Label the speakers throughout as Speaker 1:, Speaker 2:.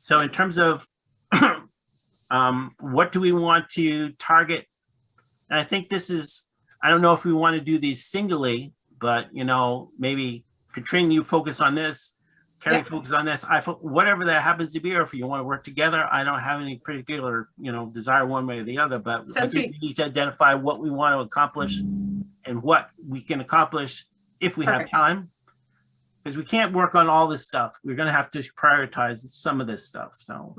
Speaker 1: So in terms of, um, what do we want to target? And I think this is, I don't know if we want to do these singly, but you know, maybe Katrina, you focus on this. Carrie
Speaker 2: Yeah.
Speaker 1: focus on this. I, fo- whatever that happens to be, or if you want to work together, I don't have any particular, you know, desire one way or the other, but I
Speaker 2: Sounds
Speaker 1: think we need to identify what we want to accomplish and what we can accomplish if we have
Speaker 2: Perfect.
Speaker 1: time. Because we can't work on all this stuff. We're gonna have to prioritize some of this stuff, so.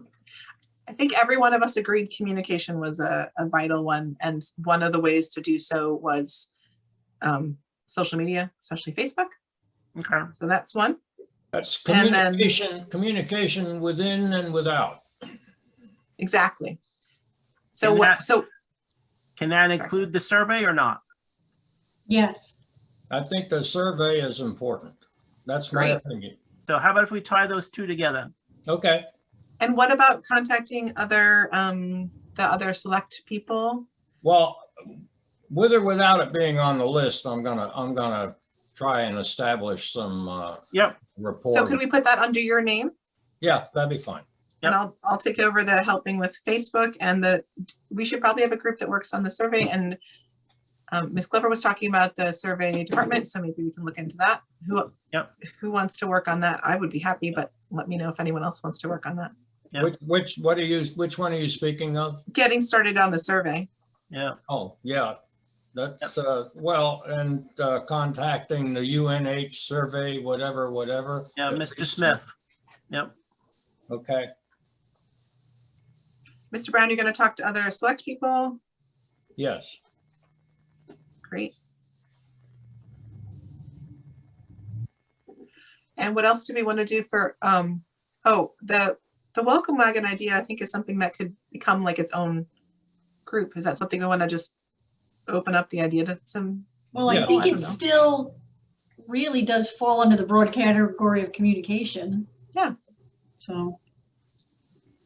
Speaker 2: I think every one of us agreed communication was a, a vital one, and one of the ways to do so was um, social media, especially Facebook.
Speaker 1: Okay,
Speaker 2: So that's one.
Speaker 3: That's
Speaker 2: And then-
Speaker 3: communication, communication within and without.
Speaker 2: Exactly. So
Speaker 1: And
Speaker 2: what?
Speaker 1: that-
Speaker 2: So
Speaker 1: can that include the survey or not?
Speaker 4: Yes,
Speaker 3: I think the survey is important. That's my
Speaker 2: Right.
Speaker 3: opinion.
Speaker 1: So how about if we tie those two together?
Speaker 3: Okay,
Speaker 2: and what about contacting other um, the other select people?
Speaker 3: well, with or without it being on the list, I'm gonna, I'm gonna try and establish some, uh,
Speaker 1: Yep.
Speaker 2: So could
Speaker 3: Rapport.
Speaker 2: we put that under your name?
Speaker 3: Yeah, that'd be fine.
Speaker 2: And I'll, I'll take over the helping with Facebook and the, we should probably have a group that works on the survey and um, Ms. Glover was talking about the survey department, so maybe we can look into that. Who,
Speaker 1: Yep.
Speaker 2: who wants to work on that? I would be happy, but let me know if anyone else wants to work on that.
Speaker 1: Yeah.
Speaker 3: Which, which, what are you, which one are you speaking of?
Speaker 2: Getting started on the survey.
Speaker 1: Yeah,
Speaker 3: Oh, yeah, that's, uh, well, and, uh, contacting the UNH survey, whatever, whatever.
Speaker 1: yeah, Mr. Smith. Yep,
Speaker 3: Okay,
Speaker 2: Mr. Brown, you're going to talk to other select people?
Speaker 3: yes.
Speaker 2: Great. And what else do we want to do for, um, oh, the, the welcome wagon idea, I think is something that could become like its own group. Is that something we want to just open up the idea to some,
Speaker 4: well,
Speaker 3: Yeah.
Speaker 4: I think
Speaker 2: I don't
Speaker 4: it
Speaker 2: know.
Speaker 4: still really does fall under the broad category of communication.
Speaker 2: Yeah.
Speaker 4: So,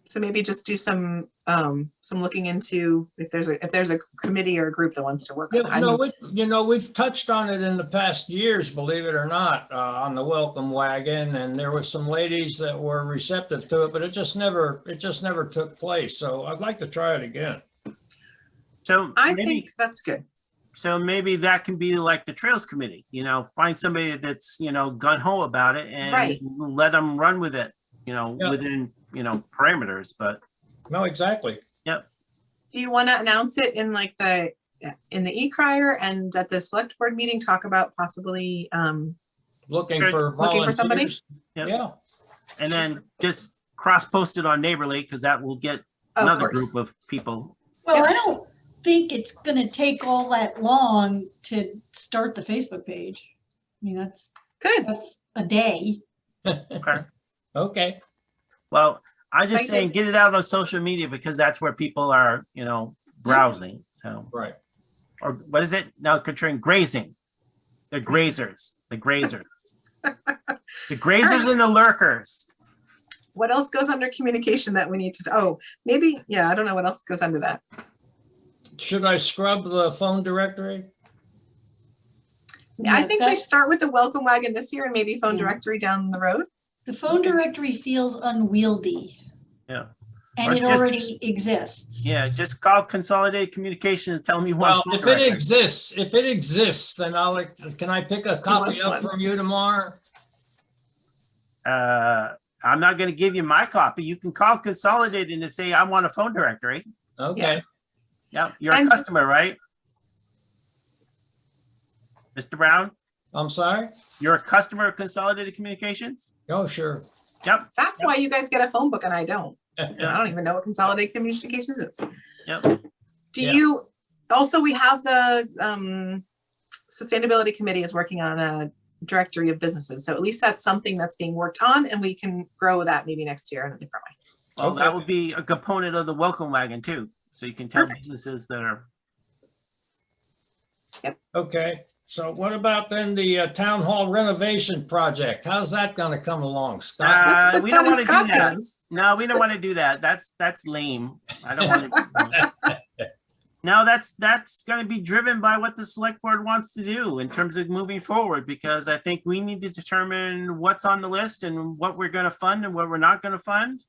Speaker 2: so maybe just do some, um, some looking into if there's a, if there's a committee or a group that wants to work on it.
Speaker 3: Yeah,
Speaker 2: I
Speaker 3: no,
Speaker 2: mean,
Speaker 3: we, you know, we've touched on it in the past years, believe it or not, uh, on the welcome wagon, and there were some ladies that were receptive to it, but it just never, it just never took place, so I'd like to try it again.
Speaker 1: so
Speaker 2: I
Speaker 1: maybe,
Speaker 2: think that's good.
Speaker 1: so maybe that can be like the Trails Committee, you know, find somebody that's, you know, gun ho about it and
Speaker 2: Right.
Speaker 1: let them run with it, you know,
Speaker 3: Yeah.
Speaker 1: within, you know, parameters, but
Speaker 3: No, exactly.
Speaker 2: Do you want to announce it in like the, in the e-crier and at the select board meeting, talk about possibly, um,
Speaker 3: Looking
Speaker 1: Good.
Speaker 3: for
Speaker 2: Looking for somebody?
Speaker 3: volunteers.
Speaker 1: Yep.
Speaker 3: Yeah,
Speaker 1: And then just cross-post it on Neighborly, because that will get
Speaker 2: Of
Speaker 1: another
Speaker 2: course.
Speaker 1: group of people.
Speaker 4: well,
Speaker 2: Yeah.
Speaker 4: I don't think it's going to take all that long to start the Facebook page. I mean, that's,
Speaker 2: Good.
Speaker 4: that's a day.
Speaker 3: okay,
Speaker 1: Well, I'm just
Speaker 2: Thank
Speaker 1: saying,
Speaker 2: you.
Speaker 1: get it out on social media because that's where people are, you know,
Speaker 2: Mm-hmm.
Speaker 1: browsing, so,
Speaker 3: right.
Speaker 1: or what is it? No, Katrina, grazing. The
Speaker 2: Mm-hmm.
Speaker 1: grazers, the grazers. The grazers and the lurkers.
Speaker 2: What else goes under communication that we need to, oh, maybe, yeah, I don't know what else goes under that.
Speaker 3: Should I scrub the phone directory?
Speaker 2: Yeah, I
Speaker 4: Yeah,
Speaker 2: think we
Speaker 4: that's-
Speaker 2: start with the welcome wagon this year and maybe phone
Speaker 4: Mhm.
Speaker 2: directory down the road.
Speaker 4: The phone directory feels unwieldy.
Speaker 1: Yeah. Or
Speaker 4: And it
Speaker 1: just-
Speaker 4: already exists.
Speaker 1: Yeah, just call Consolidated Communication and tell me you
Speaker 3: Well,
Speaker 1: want. phone
Speaker 3: if it
Speaker 1: directory.
Speaker 3: exists, if it exists, then I'll, can I pick a copy
Speaker 2: wants
Speaker 3: up
Speaker 2: one.
Speaker 3: from you tomorrow?
Speaker 1: Uh, I'm not gonna give you my copy. You can call Consolidated and say, I want a phone directory.
Speaker 3: Okay,
Speaker 1: Yep, you're a
Speaker 2: And-
Speaker 1: customer, right? Mr. Brown,
Speaker 3: I'm sorry?
Speaker 1: you're a customer of Consolidated Communications?
Speaker 3: Oh, sure.
Speaker 1: Yep,
Speaker 2: That's why you guys get a phone book and I don't. And I don't even know what consolidated communications is.
Speaker 1: Yep.
Speaker 2: Do
Speaker 3: Yeah.
Speaker 2: you, also, we have the, um, Sustainability Committee is working on a directory of businesses. So at least that's something that's being worked on and we can grow that maybe next year in a different way.
Speaker 1: well, that
Speaker 3: Okay.
Speaker 1: would be a component of the welcome wagon too, so you can tell businesses that are,
Speaker 3: Okay, so what about then the uh, town hall renovation project? How's that gonna come along, Scott?
Speaker 1: Uh,
Speaker 2: Let's put
Speaker 1: we
Speaker 2: that
Speaker 1: don't
Speaker 2: in
Speaker 1: wanna do
Speaker 2: Scott's
Speaker 1: that.
Speaker 2: hands.
Speaker 1: no, we don't want to do that, that's, that's lame. I don't want to. No, that's, that's gonna be driven by what the select board wants to do in terms of moving forward, because I think we need to determine what's on the list and what we're gonna fund and what we're not gonna fund.